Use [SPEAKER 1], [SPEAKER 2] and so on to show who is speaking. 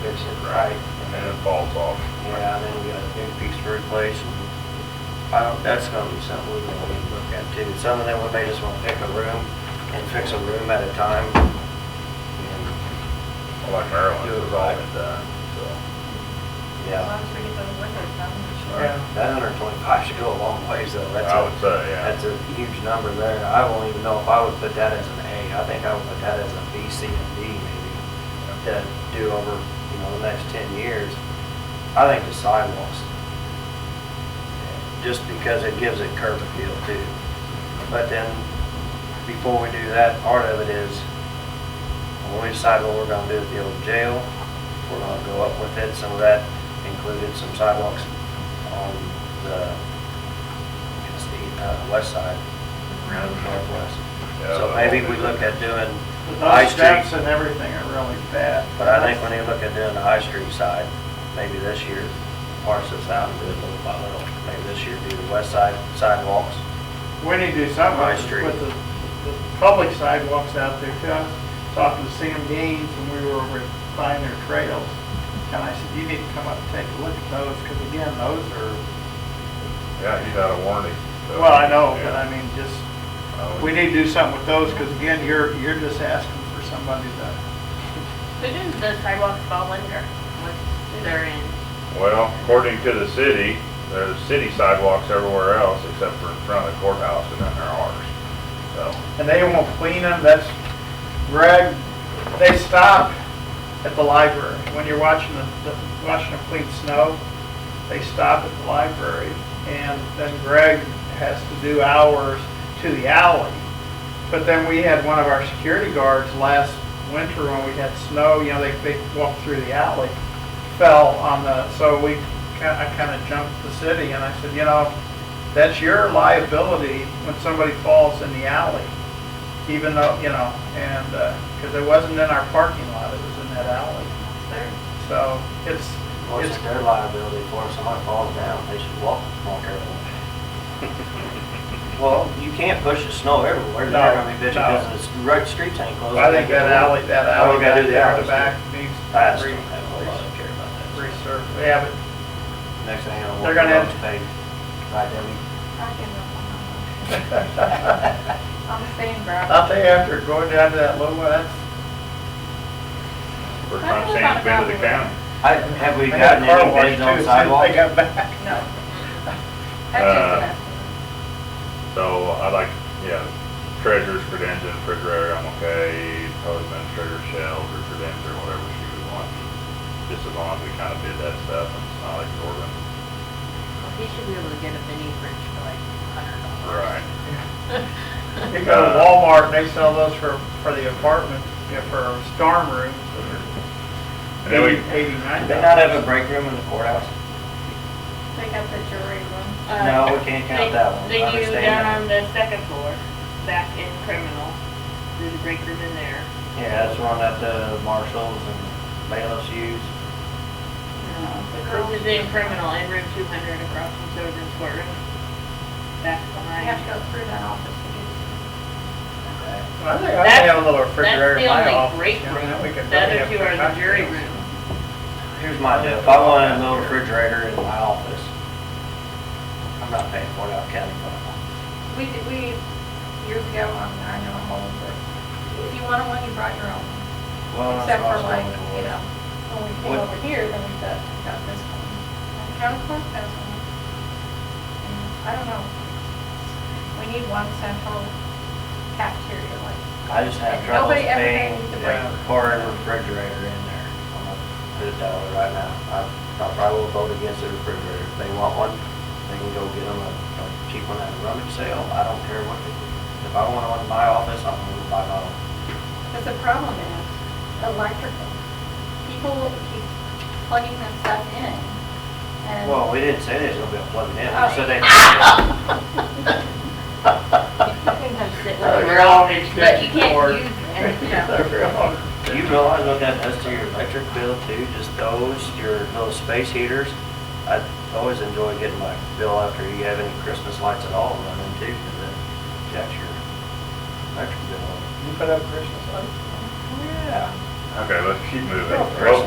[SPEAKER 1] fix it right.
[SPEAKER 2] and then it falls off.
[SPEAKER 1] Yeah, and then we got a new piece to replace, and I don't, that's gonna be something we really need to look at too. Some of them, we may just wanna pick a room and fix a room at a time, and,
[SPEAKER 2] Well, Like Maryland, it was all been done, so.
[SPEAKER 3] As
[SPEAKER 1] yeah.
[SPEAKER 3] long as we get those windows done, we should.
[SPEAKER 1] Yeah, that hundred and twenty-five should go a long ways though, that's
[SPEAKER 2] I would
[SPEAKER 1] a,
[SPEAKER 2] say, yeah.
[SPEAKER 1] that's a huge number there, I won't even know if I would put that as an A, I think I would put that as a B, C, and D maybe, to do over, you know, the next ten years. I think the sidewalks, just because it gives it curb appeal too. But then, before we do that, part of it is, when we decide what we're gonna do with the old jail, we're gonna go up with it, some of that included some sidewalks on the, I guess the, uh, west side, around the northwest.
[SPEAKER 2] Yeah,
[SPEAKER 1] So
[SPEAKER 2] the
[SPEAKER 1] maybe
[SPEAKER 2] whole
[SPEAKER 1] we
[SPEAKER 2] thing.
[SPEAKER 1] look at doing High
[SPEAKER 4] Those steps
[SPEAKER 1] Street,
[SPEAKER 4] and everything are really bad.
[SPEAKER 1] but I think when you look at doing the High Street side, maybe this year, parse this out and do it little by little. Maybe this year do the west side sidewalks.
[SPEAKER 4] We need to do
[SPEAKER 1] High
[SPEAKER 4] something
[SPEAKER 1] Street.
[SPEAKER 4] with the, the public sidewalks out there too. I was talking to Sam Gaines when we were over buying their trails. And I said, you need to come up and take a look at those, because again, those are,
[SPEAKER 2] Yeah, he's out of warranty. so-
[SPEAKER 4] well, I know, but
[SPEAKER 2] Yeah.
[SPEAKER 4] I mean, just,
[SPEAKER 2] I would-
[SPEAKER 4] we need to do something with those, because again, you're, you're just asking for somebody to,
[SPEAKER 3] Who does the sidewalks fall under? What's their end?
[SPEAKER 2] Well, according to the city, there's city sidewalks everywhere else except for in front of the courthouse and then there are ours. So,
[SPEAKER 4] and they won't clean them, that's, Greg, they stop at the library. When you're watching the, the- watching them clean snow, they stop at the library, and then Greg has to do hours to the alley. But then we had one of our security guards last winter when we had snow, you know, they, they walked through the alley, fell on the, so we, ki- I kind of jumped the city, and I said, you know, that's your liability when somebody falls in the alley, even though, you know, and, because it wasn't in our parking lot, it was in that alley.
[SPEAKER 3] Their-
[SPEAKER 4] So it's,
[SPEAKER 1] Of course,
[SPEAKER 4] it's
[SPEAKER 1] it's their liability for if someone falls down, they should walk, walk everywhere. Well, you can't push the snow everywhere,
[SPEAKER 4] No,
[SPEAKER 1] they're gonna be bitching
[SPEAKER 4] no.
[SPEAKER 1] because the road, streets ain't closed.
[SPEAKER 4] I think that alley, that
[SPEAKER 1] Oh,
[SPEAKER 4] alley
[SPEAKER 1] we gotta
[SPEAKER 4] back
[SPEAKER 1] do the
[SPEAKER 4] there in
[SPEAKER 1] alleys,
[SPEAKER 4] the back needs
[SPEAKER 1] I just
[SPEAKER 4] to
[SPEAKER 1] don't
[SPEAKER 4] be
[SPEAKER 1] have a lot of care about that.
[SPEAKER 4] resurfaced. Yeah, but
[SPEAKER 1] Next thing I know,
[SPEAKER 4] They're
[SPEAKER 1] we're
[SPEAKER 4] gonna
[SPEAKER 1] gonna
[SPEAKER 4] have-
[SPEAKER 1] pay, right, Debbie?
[SPEAKER 3] I give up on that one. I'm staying, bro.
[SPEAKER 1] Uh,
[SPEAKER 4] I'll tell you after going down to that low one, that's,
[SPEAKER 2] first time Sam's been to the county.
[SPEAKER 1] I, have we
[SPEAKER 4] they had
[SPEAKER 1] gotten
[SPEAKER 4] a car
[SPEAKER 1] any
[SPEAKER 4] wash too,
[SPEAKER 1] bids on
[SPEAKER 4] as soon as
[SPEAKER 1] sidewalks?
[SPEAKER 4] they got back.
[SPEAKER 3] No.
[SPEAKER 1] uh,
[SPEAKER 3] That's
[SPEAKER 2] So I like, yeah, treasurer's credentials, and refrigerator, I'm okay, probably administrator shells or credentials or whatever she would want. Just as long as we kind of did that stuff and it's not like Jordan.
[SPEAKER 5] He should be able to get a mini fridge for like a hundred dollars.
[SPEAKER 2] Right.
[SPEAKER 4] You go to Walmart, and they sell those for, for the apartment, yeah, for storm rooms,
[SPEAKER 2] And then we,
[SPEAKER 4] eighty-nine
[SPEAKER 1] Did they not have a
[SPEAKER 4] dollars.
[SPEAKER 1] break room in the courthouse?
[SPEAKER 3] just, they got the jewelry room.
[SPEAKER 6] Uh,
[SPEAKER 1] No, we can't count
[SPEAKER 6] they-
[SPEAKER 1] that one. I
[SPEAKER 6] They do
[SPEAKER 1] understand
[SPEAKER 6] down
[SPEAKER 1] that.
[SPEAKER 6] on the second floor, back in criminal, there's a break room in there.
[SPEAKER 1] Yeah, that's one that the marshals and bailiffs use.
[SPEAKER 3] Uh-huh.
[SPEAKER 6] This is in criminal, in room two hundred across from Sojourn's courtroom, back
[SPEAKER 3] I have
[SPEAKER 6] behind.
[SPEAKER 3] to go through that office to get
[SPEAKER 1] Okay.
[SPEAKER 4] I think I have a little refrigerator
[SPEAKER 6] That's
[SPEAKER 4] in
[SPEAKER 6] the
[SPEAKER 4] my
[SPEAKER 6] only
[SPEAKER 4] office.
[SPEAKER 6] break
[SPEAKER 4] you know,
[SPEAKER 6] room,
[SPEAKER 4] we could
[SPEAKER 6] the
[SPEAKER 4] really
[SPEAKER 6] other
[SPEAKER 4] have
[SPEAKER 6] two are the
[SPEAKER 4] cocktails.
[SPEAKER 6] jury room.
[SPEAKER 1] Here's my deal, if I wanted a little refrigerator in my office, I'm not paying for it out of county fund.
[SPEAKER 3] We did, we, years ago, on I know I'm old, but if you wanted one, you brought your own.
[SPEAKER 1] Well, that's
[SPEAKER 3] Except
[SPEAKER 1] what I
[SPEAKER 3] for
[SPEAKER 1] was
[SPEAKER 3] like,
[SPEAKER 1] going for.
[SPEAKER 3] you know, when we came
[SPEAKER 1] What-
[SPEAKER 3] over here, then we got, got this one. And county clerk has one. And I don't know. We need one central cafeteria, like.
[SPEAKER 1] I just have
[SPEAKER 3] Nobody
[SPEAKER 1] trouble
[SPEAKER 3] ever
[SPEAKER 1] paying
[SPEAKER 3] pays the
[SPEAKER 4] break.
[SPEAKER 1] for a refrigerator in there. I'm gonna put it that way right now. I I probably will vote against the refrigerator. If they want one, they can go get them a a cheap one at a rummage sale. I don't care what they do. If I want one in my office, I'm gonna buy one.
[SPEAKER 3] But the problem is electrical. People will keep plugging that stuff in and.
[SPEAKER 1] Well, we didn't say there's gonna be a plug in. We
[SPEAKER 3] Oh.
[SPEAKER 1] said they.
[SPEAKER 4] We're Oh, all in
[SPEAKER 5] But you
[SPEAKER 4] Or-
[SPEAKER 5] can't use anything.
[SPEAKER 1] You realize what that does to your electric bill too? Just those, your little space heaters. I always enjoy getting my bill after you have any Christmas lights at all running too, because it jacks your electric bill.
[SPEAKER 4] You put up Christmas lights?
[SPEAKER 1] Yeah.
[SPEAKER 2] okay, let's keep moving.
[SPEAKER 4] Well,
[SPEAKER 2] Well,